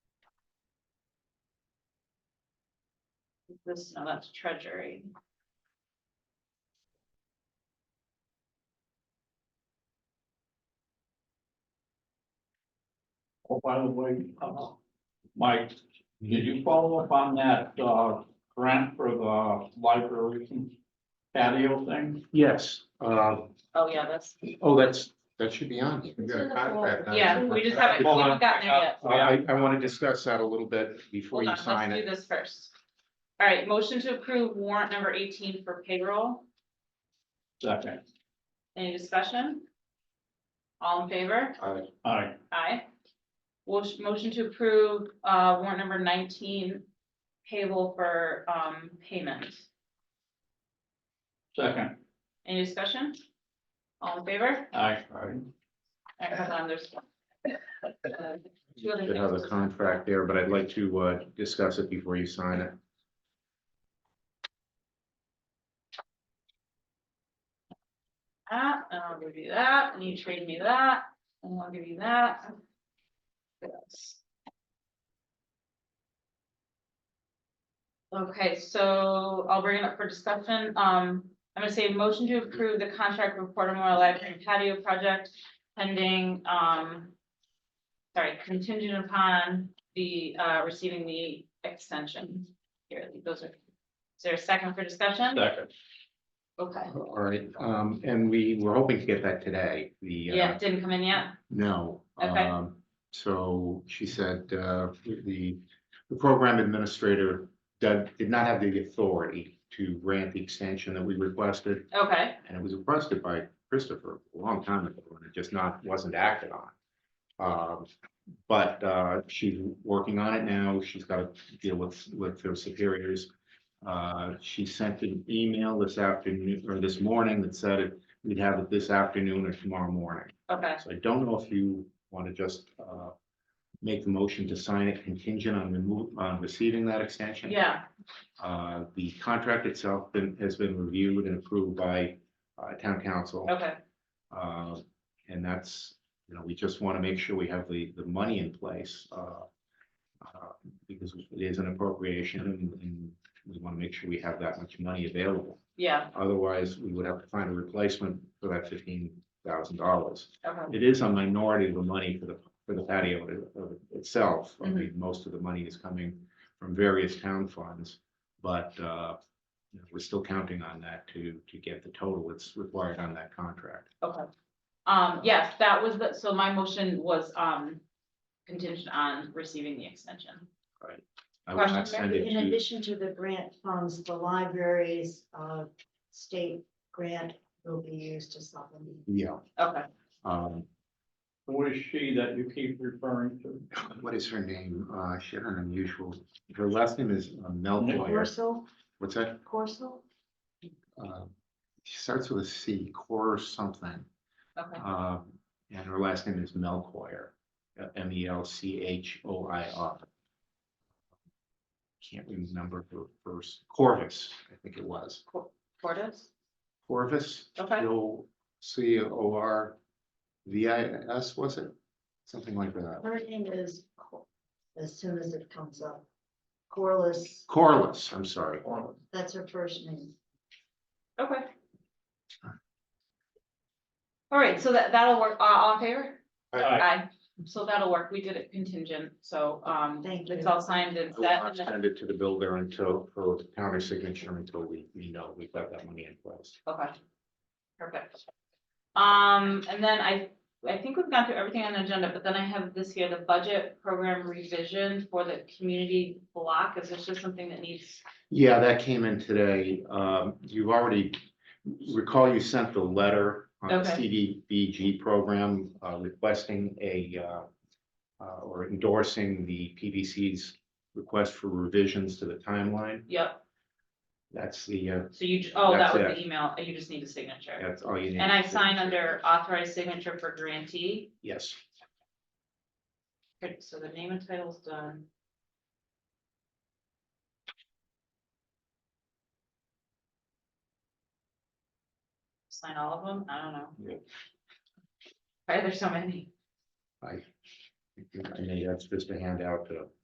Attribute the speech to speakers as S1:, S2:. S1: this, no, that's treasury.
S2: Oh, by the way, uh, Mike, did you follow up on that, uh, grant for the library patio thing?
S3: Yes, uh,
S1: Oh, yeah, that's,
S3: oh, that's,
S4: um, That should be on. here. We've got a contract on it.
S1: yeah, we just haven't, we
S3: Hold
S1: haven't
S3: on.
S1: gotten there yet.
S4: I, I want to discuss that a little bit before
S1: Hold
S4: you
S1: on,
S4: sign
S1: let's do
S4: it.
S1: this first. All right, motion to approve warrant number eighteen for payroll.
S2: Second,
S1: Any discussion? All in favor?
S4: Uh,
S2: I,
S1: Aye. Motion- Motion to approve uh warrant number nineteen payable for um payment.
S2: second,
S1: Any discussion? All in favor?
S2: I,
S1: All right, hold on, there's. uh, Two other
S4: Should have a
S1: things.
S4: contract there, but I'd like to, uh, discuss it before you sign it.
S1: That, and I'll give you that, and you trade me that, and I'll give you that. Yes. Okay, so I'll bring it up for discussion. Um, I'm gonna say motion to approve the contract with Porter Memorial Library and patio project pending, um. Sorry, contingent upon the, uh, receiving the extension. Here, those are, is there a second for discussion?
S2: second,
S1: Okay,
S4: All right, um, and we were hoping to get that today, the,
S1: yeah,
S4: uh,
S1: it didn't come in yet?
S4: no.
S1: Okay.
S4: um, So she said, uh, the, the program administrator did, did not have the authority to grant the extension that we requested.
S1: Okay,
S4: And it was requested by Christopher a long time ago, and it just not, wasn't acted on. Um, but, uh, she's working on it now, she's got to deal with, with her superiors. Uh, she sent an email this afternoon, or this morning, that said it- we'd have it this afternoon or tomorrow morning.
S1: okay.
S4: So I don't know if you want to just, uh, make the motion to sign it contingent on remove, on receiving that extension.
S1: Yeah,
S4: Uh, the contract itself been, has been reviewed and approved by, uh, town council.
S1: okay,
S4: Uh, and that's, you know, we just want to make sure we have the, the money in place, uh. uh, Because it is an appropriation and, and we want to make sure we have that much money available.
S1: yeah,
S4: Otherwise, we would have to find a replacement for that fifteen thousand dollars.
S1: okay,
S4: It is a minority of the money for the, for the patio i- itself.
S5: Mm-hmm.
S4: I mean, most of the money is coming from various town funds. But, uh, you know, we're still counting on that to, to get the total that's required on that contract.
S1: okay. Um, yes, that was the, so my motion was, um, contingent on receiving the extension.
S4: I would not
S1: Question,
S4: send it
S5: In
S4: to,
S5: addition to the grant funds, the library's uh state grant will be used to supplement.
S4: yeah,
S1: Okay,
S4: um,
S2: who is she that you keep referring to?
S4: what is her name? Uh, she had an unusual, her last name is uh, Melchior.
S5: Corso,
S4: What's that?
S5: Corso,
S4: Uh, She starts with a C, Cor something.
S1: okay,
S4: Uh, and her last name is Melchior, uh, M E L C H O I R. Can't remember her first, Corvus, I think it was.
S1: Cordis?
S4: Corvus.
S1: Okay.
S4: C O R V I S, was it? Something like that.
S5: her name is, Cor- as soon as it comes up. Corliss,
S4: Corliss, I'm sorry.
S5: that's her first name.
S1: Okay. All right, so that, that'll work, Uh, all in favor?
S2: Aye.
S1: Aye, so that'll work, we did it contingent, so, um,
S5: Thank
S1: it's
S5: you.
S1: all signed and
S4: I will
S1: set.
S4: not
S1: and then-
S4: send it to the builder until, for counter signature until we, we know we've got that money in place.
S1: Okay. Perfect. Um, and then I, I think we've gone through everything on the agenda, but then I have this here, the budget program revision for the community block. Is this just something that needs?
S4: Yeah, that came in today. Um, you've already, recall you sent the letter on the
S1: Okay.
S4: CDBG program uh, requesting a, uh, uh, or endorsing the PVC's request for revisions to the timeline.
S1: Yep,
S4: That's the, uh,
S1: so you, ju- oh, that
S4: That's
S1: was the
S4: it.
S1: email. You just need a signature.
S4: that's all you need.
S1: And I sign under authorized signature for grantee.
S4: Yes,
S1: Okay, So the name and title's done. Sign all of them? I don't know.
S4: Yeah.
S1: Why are there so many?
S4: I, I mean, that's just a handout to